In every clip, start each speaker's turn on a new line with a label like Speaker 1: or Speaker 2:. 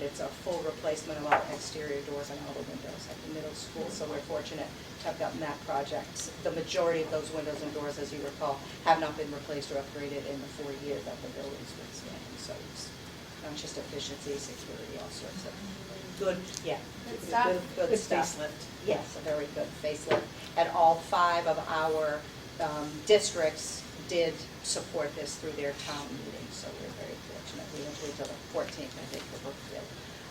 Speaker 1: it's a full replacement of all the exterior doors and all the windows at the middle school, so we're fortunate to have gotten that project. The majority of those windows and doors, as you recall, have not been replaced or upgraded in the four years that the building's been standing, so it's not just efficiency, security, all sorts of good, yeah.
Speaker 2: Good stuff.
Speaker 1: Good
Speaker 3: Good
Speaker 1: stuff.
Speaker 3: facelift.
Speaker 1: Yes, a very good facelift. And all five of our um, districts did support this through their town meeting, so we're very fortunate. We went until the fourteenth, I think, for Brookfield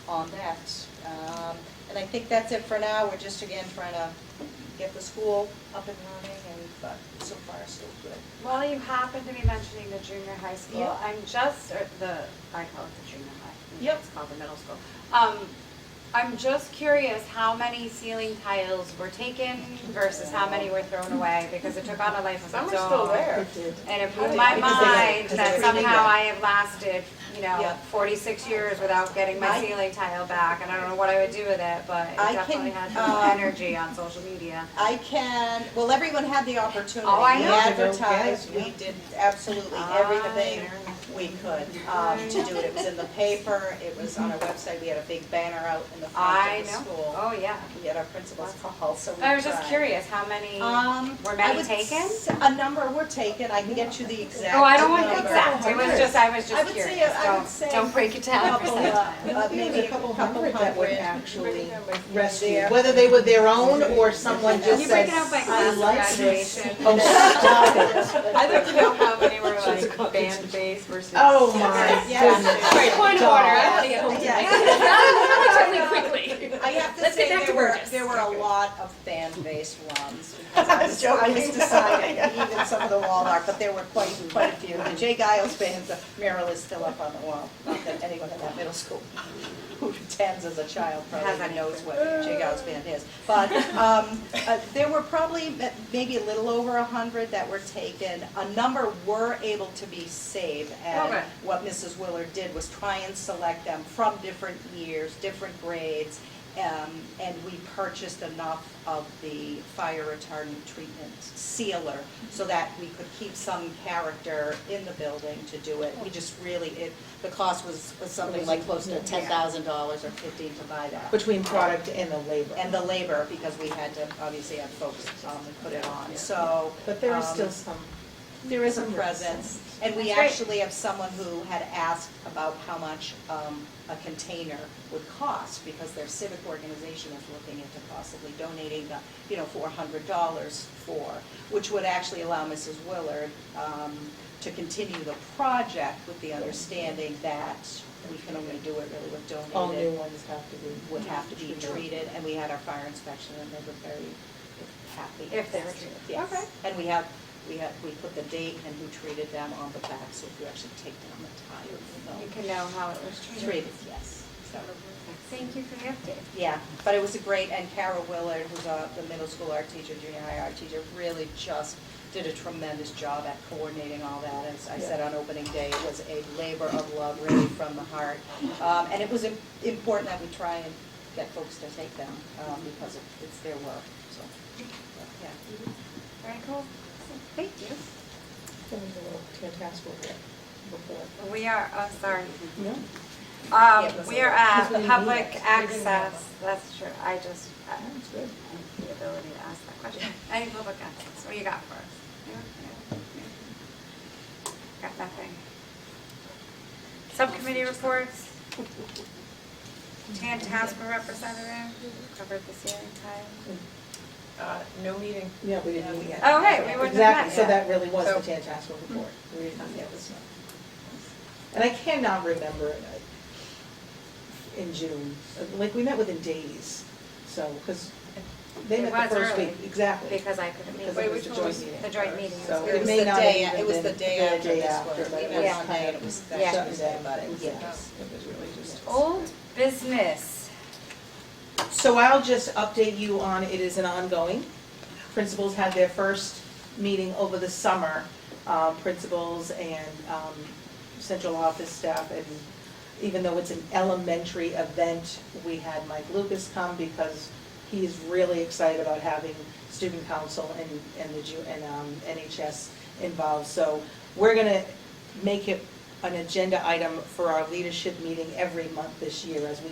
Speaker 1: on that. Um, And I think that's it for now. We're just again trying to get the school up and running and, but so far, so good.
Speaker 2: Well, you happen to be mentioning the junior high school,
Speaker 1: Yeah.
Speaker 2: I'm just, or the, I call it the junior high.
Speaker 1: Yep.
Speaker 2: It's called the middle school. Um, I'm just curious how many ceiling tiles were taken versus how many were thrown away, because it took on a life of its own.
Speaker 4: Some are still there.
Speaker 2: And it blew my
Speaker 1: Because they-
Speaker 2: mind
Speaker 1: because
Speaker 2: that
Speaker 1: they-
Speaker 2: somehow I have lasted, you
Speaker 1: Yeah.
Speaker 2: know, forty-six years without getting my
Speaker 1: I-
Speaker 2: ceiling tile back, and I don't know what I would do with it, but it
Speaker 1: I
Speaker 2: definitely
Speaker 1: can,
Speaker 2: had some
Speaker 1: um,
Speaker 2: energy on social media.
Speaker 1: I can, well, everyone had the opportunity.
Speaker 2: Oh, I
Speaker 1: We
Speaker 2: know. Ah.
Speaker 1: advertised, we did absolutely everything
Speaker 2: I
Speaker 1: we could um, to do it. It was in the paper, it was on our website, we had a big banner out in the front
Speaker 2: I
Speaker 1: of the
Speaker 2: know,
Speaker 1: school.
Speaker 2: oh, yeah.
Speaker 1: We had our principal's call, so we
Speaker 2: I was just
Speaker 1: tried.
Speaker 2: curious, how many?
Speaker 1: Um,
Speaker 2: Were
Speaker 1: I
Speaker 2: many
Speaker 1: would
Speaker 2: taken?
Speaker 1: s- A number were taken, I can get you the exact number.
Speaker 2: Oh, I don't want the exact, it was just, I was
Speaker 1: I
Speaker 2: just
Speaker 1: would say-
Speaker 2: curious,
Speaker 1: I would say
Speaker 2: don't, don't break it down.
Speaker 1: Couple, uh, Maybe a couple hundred.
Speaker 3: that would actually
Speaker 1: There.
Speaker 3: rescue, whether they were their own or someone
Speaker 2: Can
Speaker 3: just
Speaker 2: you break it
Speaker 3: said,
Speaker 2: out by
Speaker 3: I like
Speaker 2: class
Speaker 3: this.
Speaker 2: graduation?
Speaker 3: Oh, stop it.
Speaker 4: I don't know how many were like band based versus.
Speaker 3: Oh, my
Speaker 1: Yes.
Speaker 3: goodness.
Speaker 4: Point of order, I have to get home
Speaker 1: Yeah.
Speaker 4: tonight.
Speaker 1: I have to
Speaker 5: Let's
Speaker 1: say,
Speaker 5: get back
Speaker 1: there
Speaker 5: to
Speaker 1: were,
Speaker 5: Burgess.
Speaker 1: there were a lot of fan-based ones. because I was joking. I was deciding, even some of the wall art, but there were quite, quite a few. The Jay Giles fans, the mural is still up on the wall. Not that anyone in that middle school who attends as a child
Speaker 2: Has
Speaker 1: probably
Speaker 2: any.
Speaker 1: knows what Jay Giles band is. But um, uh, there were probably ma- maybe a little over a hundred that were taken. A number were able to be saved,
Speaker 2: Okay.
Speaker 1: and what Mrs. Willard did was try and select them from different years, different grades, um, and we purchased enough of the fire retardant treatment sealer so that we could keep some character in the building to do it. We just really, it, the cost was, was something like close to ten thousand dollars or fifteen to buy that.
Speaker 3: Between product and the labor.
Speaker 1: And the labor, because we had to obviously have folks, um, put it on, so.
Speaker 3: But there is
Speaker 1: um,
Speaker 3: still some.
Speaker 1: there is a
Speaker 3: Some
Speaker 1: presence, and we
Speaker 2: That's great.
Speaker 1: actually have someone who had asked about how much um, a container would cost, because their civic organization is looking into possibly donating, the, you know, four hundred dollars for, which would actually allow Mrs. Willard um, to continue the project with the understanding that we can only do it really with donated
Speaker 3: All new ones have to be.
Speaker 1: would have to be treated, and we had our fire inspection, and they were very happy.
Speaker 2: If they were treated.
Speaker 1: Yes.
Speaker 2: Okay.
Speaker 1: And we have, we have, we put the date and who treated them on the back, so if you actually take down the tile,
Speaker 2: You
Speaker 1: you
Speaker 2: can know how it was
Speaker 1: know.
Speaker 2: treated.
Speaker 1: Treated, yes, so,
Speaker 2: Thank you for the update.
Speaker 1: yeah, but it was a great, and Carol Willard, who's a, the middle school art teacher, junior high art teacher, really just did a tremendous job at coordinating all that, as I said on opening day, it was a labor of love, really from the heart. Um, and it was im- important that we try and get folks to take them, um, because it- it's their work, so, yeah.
Speaker 2: Very cool. Thank you.
Speaker 3: That was a little fantastic before.
Speaker 2: We are, oh, sorry.
Speaker 3: No?
Speaker 2: Um,
Speaker 1: it was
Speaker 2: we are
Speaker 1: a-
Speaker 2: at
Speaker 3: because we
Speaker 2: public
Speaker 3: need it.
Speaker 2: access, that's true, I just, I
Speaker 3: That's good.
Speaker 2: have the ability to ask that question. Any public access, what do you got for us? Anyone? Anyone? Anyone? Got nothing. Subcommittee reports. Tan Tasper representative, covered the ceiling tile.
Speaker 4: Uh, no meeting.
Speaker 3: Yeah, we didn't meet yet.
Speaker 2: Oh, right, we wouldn't have met
Speaker 3: Exactly, so
Speaker 2: yet.
Speaker 3: that really was the
Speaker 4: So-
Speaker 3: Tantascwa report. We did not get this one. And I cannot remember uh, in June, like, we met within days, so, because they
Speaker 2: It
Speaker 3: met the
Speaker 2: was
Speaker 3: first week.
Speaker 2: early,
Speaker 3: Exactly.
Speaker 2: Because I couldn't meet.
Speaker 3: Because it was
Speaker 4: which
Speaker 3: a
Speaker 4: one
Speaker 3: joint
Speaker 4: was-
Speaker 3: meeting.
Speaker 2: The joint meeting.
Speaker 3: So
Speaker 2: It
Speaker 3: it
Speaker 2: was
Speaker 3: may
Speaker 1: the
Speaker 3: not
Speaker 1: day-
Speaker 3: have
Speaker 1: it
Speaker 3: even
Speaker 1: was the
Speaker 3: been
Speaker 1: day after this one.
Speaker 3: but it
Speaker 1: We
Speaker 3: was
Speaker 2: met
Speaker 1: Monday,
Speaker 3: kind
Speaker 1: and
Speaker 3: of
Speaker 1: it was that
Speaker 3: shut
Speaker 1: Tuesday,
Speaker 3: down.
Speaker 1: but it was-
Speaker 3: Yeah.
Speaker 4: It was really just.
Speaker 2: Old business.
Speaker 3: So I'll just update you on, it is an ongoing. Principals had their first meeting over the summer, um, principals and um, central office staff. And even though it's an elementary event, we had Mike Lucas come because he is really excited about having student council and, and the, ju- and um, NHS involved. So we're gonna make it an agenda item for our leadership meeting every month this year as we